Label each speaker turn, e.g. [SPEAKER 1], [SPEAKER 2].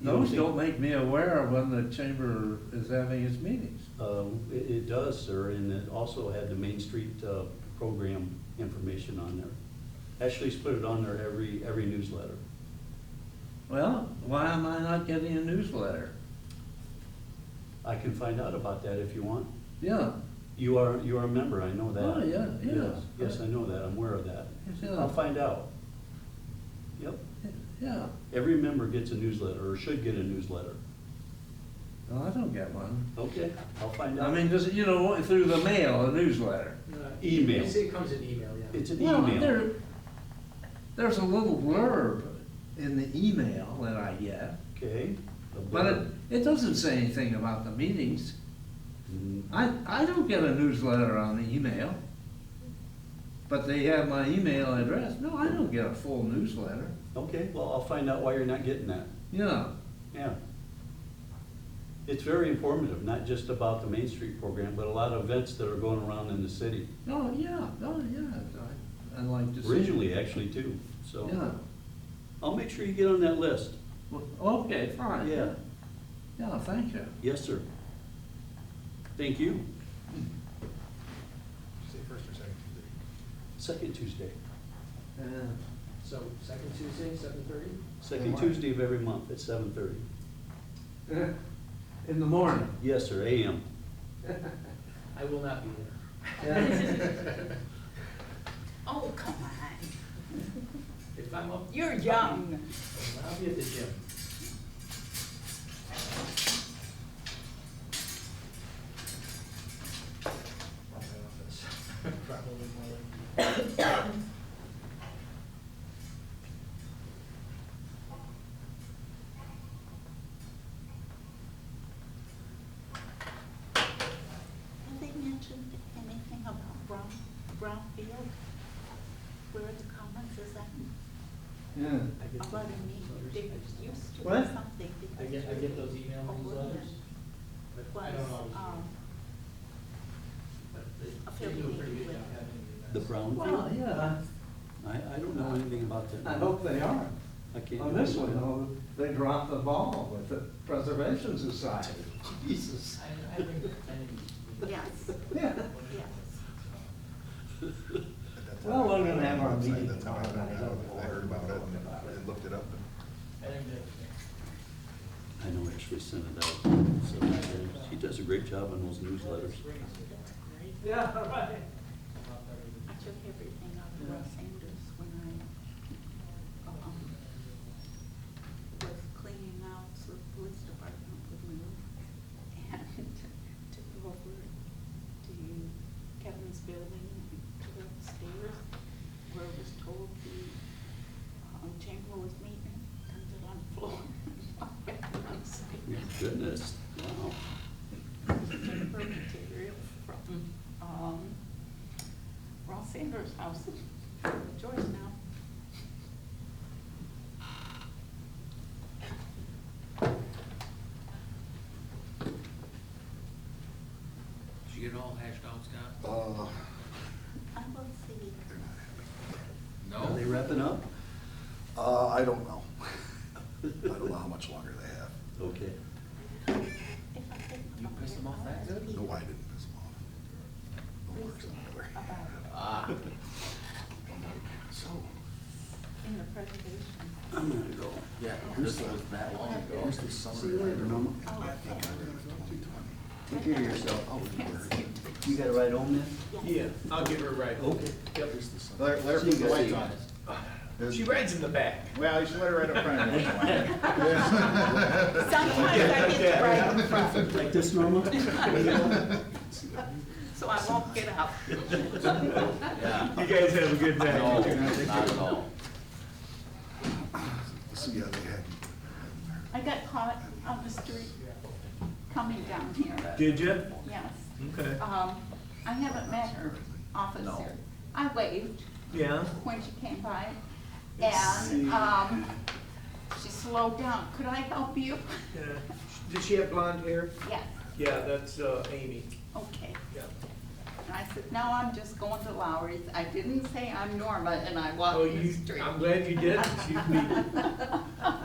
[SPEAKER 1] Those don't make me aware of when the chamber is having its meetings.
[SPEAKER 2] Uh, It it does, sir, and it also had the Main Street uh, program information on there. Ashley's put it on there every, every newsletter.
[SPEAKER 1] Well, why am I not getting a newsletter?
[SPEAKER 2] I can find out about that if you want.
[SPEAKER 1] Yeah,
[SPEAKER 2] You are, you are a member, I know that.
[SPEAKER 1] Oh, yeah, yeah.
[SPEAKER 2] Yes, Yes, I know that, I'm aware of that.
[SPEAKER 1] Yeah.
[SPEAKER 2] I'll find out. Yep,
[SPEAKER 1] yeah,
[SPEAKER 2] every member gets a newsletter, or should get a newsletter.
[SPEAKER 1] well, I don't get one.
[SPEAKER 2] Okay, I'll find
[SPEAKER 1] I
[SPEAKER 2] out.
[SPEAKER 1] mean, just, you know, through the mail, a newsletter.
[SPEAKER 3] No,
[SPEAKER 2] Email.
[SPEAKER 3] It's, Uh, it comes in email, yeah.
[SPEAKER 2] It's an
[SPEAKER 1] Well, there,
[SPEAKER 2] email.
[SPEAKER 1] there's a little blurb in the email that I get,
[SPEAKER 2] Okay. a
[SPEAKER 1] but it,
[SPEAKER 2] blurb.
[SPEAKER 1] it doesn't say anything about the meetings.
[SPEAKER 2] Mm,
[SPEAKER 1] I, I don't get a newsletter on the email, but they have my email address. No, I don't get a full newsletter.
[SPEAKER 2] Okay, well, I'll find out why you're not getting that.
[SPEAKER 1] Yeah,
[SPEAKER 2] Yeah. It's very informative, not just about the Main Street program, but a lot of events that are going around in the city.
[SPEAKER 1] oh, yeah, oh, yeah, I, I like to see.
[SPEAKER 2] Originally, actually, too, so.
[SPEAKER 1] Yeah,
[SPEAKER 2] I'll make sure you get on that list.
[SPEAKER 1] well, okay, fine.
[SPEAKER 2] Yeah,
[SPEAKER 1] Yeah, thank you.
[SPEAKER 2] yes, sir. Thank you.
[SPEAKER 4] Say first or second Tuesday?
[SPEAKER 2] Second Tuesday,
[SPEAKER 1] Uh,
[SPEAKER 3] So second Tuesday, seven thirty?
[SPEAKER 2] second Tuesday of every month at seven thirty.
[SPEAKER 1] In the morning.
[SPEAKER 2] Yes, sir, AM.
[SPEAKER 3] I will not be there.
[SPEAKER 5] Oh, come on.
[SPEAKER 3] If I'm up,
[SPEAKER 5] You're young.
[SPEAKER 3] I'll be at the gym.
[SPEAKER 4] Or my office. Probably more like.
[SPEAKER 5] Have they mentioned anything about Brown, Brown Field? Where the Commons is at?
[SPEAKER 1] Yeah.
[SPEAKER 3] I get
[SPEAKER 5] About
[SPEAKER 3] those
[SPEAKER 5] a meeting,
[SPEAKER 3] newsletters.
[SPEAKER 5] they
[SPEAKER 3] I just-
[SPEAKER 5] used to
[SPEAKER 1] What?
[SPEAKER 5] do something because.
[SPEAKER 3] I get, I get those email
[SPEAKER 5] Oh, wouldn't
[SPEAKER 3] newsletters,
[SPEAKER 5] it?
[SPEAKER 3] but I don't
[SPEAKER 5] Was,
[SPEAKER 3] always.
[SPEAKER 5] um,
[SPEAKER 3] but they, they do a pretty good job having
[SPEAKER 2] The
[SPEAKER 3] events.
[SPEAKER 2] Brown
[SPEAKER 1] Well,
[SPEAKER 2] Field?
[SPEAKER 1] yeah,
[SPEAKER 2] I, I don't know anything about that.
[SPEAKER 1] I hope they are.
[SPEAKER 2] I can't.
[SPEAKER 1] On this one, though, they dropped the ball with the Preservation Society. Jesus.
[SPEAKER 3] I, I think, I think.
[SPEAKER 5] yes,
[SPEAKER 1] Yeah,
[SPEAKER 5] yes.
[SPEAKER 4] At that time,
[SPEAKER 1] well, we're gonna have our
[SPEAKER 4] that's how-
[SPEAKER 1] meeting
[SPEAKER 4] That's how I
[SPEAKER 1] tomorrow
[SPEAKER 4] found
[SPEAKER 1] night.
[SPEAKER 4] out. I heard about it and-
[SPEAKER 1] About it.
[SPEAKER 4] and looked it up and.
[SPEAKER 3] I think that,
[SPEAKER 2] I know Ashley sent it out, so she does a great job on those newsletters.
[SPEAKER 3] yeah, right.
[SPEAKER 5] I took everything out of Los Angeles when I, um, was cleaning out the police department with me. And took over to Kevin's building, to the upstairs, where I was told the, um, chamber was meeting, turned it on the floor. I'm
[SPEAKER 2] My
[SPEAKER 5] saying,
[SPEAKER 2] Goodness, wow.
[SPEAKER 5] Chamber material from, um, Ross Sanders' house, George now.
[SPEAKER 6] Did you get it all hashed out, Scott?
[SPEAKER 4] Uh,
[SPEAKER 5] I will see.
[SPEAKER 2] Are
[SPEAKER 6] No?
[SPEAKER 2] they wrapping up?
[SPEAKER 4] uh, I don't know. I don't know how much longer they have.
[SPEAKER 2] Okay.
[SPEAKER 5] If I think
[SPEAKER 6] You
[SPEAKER 5] about
[SPEAKER 6] pissed
[SPEAKER 5] it,
[SPEAKER 6] them off
[SPEAKER 5] I'll
[SPEAKER 6] that
[SPEAKER 5] ask
[SPEAKER 6] good?
[SPEAKER 5] Pete
[SPEAKER 4] No, I didn't piss them off. No worse than the other.
[SPEAKER 5] about
[SPEAKER 6] Ah,
[SPEAKER 4] So,
[SPEAKER 5] In the presentation.
[SPEAKER 2] I'm gonna go.
[SPEAKER 6] yeah, this was that long ago.
[SPEAKER 4] here's the
[SPEAKER 2] See you later,
[SPEAKER 4] summary.
[SPEAKER 2] Mama.
[SPEAKER 5] Oh,
[SPEAKER 4] I think I read it twenty twenty.
[SPEAKER 2] Take care of yourself.
[SPEAKER 4] Oh, it worked.
[SPEAKER 2] You gotta ride home then?
[SPEAKER 3] Yeah, I'll give her a ride.
[SPEAKER 2] Okay.
[SPEAKER 4] Here's the summary.
[SPEAKER 7] Let her, let her
[SPEAKER 2] See
[SPEAKER 7] put
[SPEAKER 2] you
[SPEAKER 7] the
[SPEAKER 2] guys.
[SPEAKER 7] lights on.
[SPEAKER 3] She rides in the back.
[SPEAKER 7] Well, you should let her right up front. if you want.
[SPEAKER 5] Sometimes I get to write in front,
[SPEAKER 2] Like this, Norma?
[SPEAKER 5] so I won't get out.
[SPEAKER 6] Yeah.
[SPEAKER 7] You guys have a good night.
[SPEAKER 6] No, not at all.
[SPEAKER 4] So, yeah, they had,
[SPEAKER 5] I got caught on the street coming down here,
[SPEAKER 7] Did you?
[SPEAKER 5] yes.
[SPEAKER 7] Okay.
[SPEAKER 5] Um, I haven't met her, officer. I waved
[SPEAKER 7] Yeah.
[SPEAKER 5] when she came by, and, um, she slowed down. Could I help you?
[SPEAKER 7] Did she have blonde hair?
[SPEAKER 5] Yes,
[SPEAKER 7] Yeah, that's uh, Amy.
[SPEAKER 5] okay.
[SPEAKER 7] Yeah.
[SPEAKER 5] And I said, no, I'm just going to Lowry's. I didn't say I'm Norma and I walked
[SPEAKER 7] Oh,
[SPEAKER 5] the
[SPEAKER 7] you-
[SPEAKER 5] street.
[SPEAKER 7] I'm glad you did. She's leaving.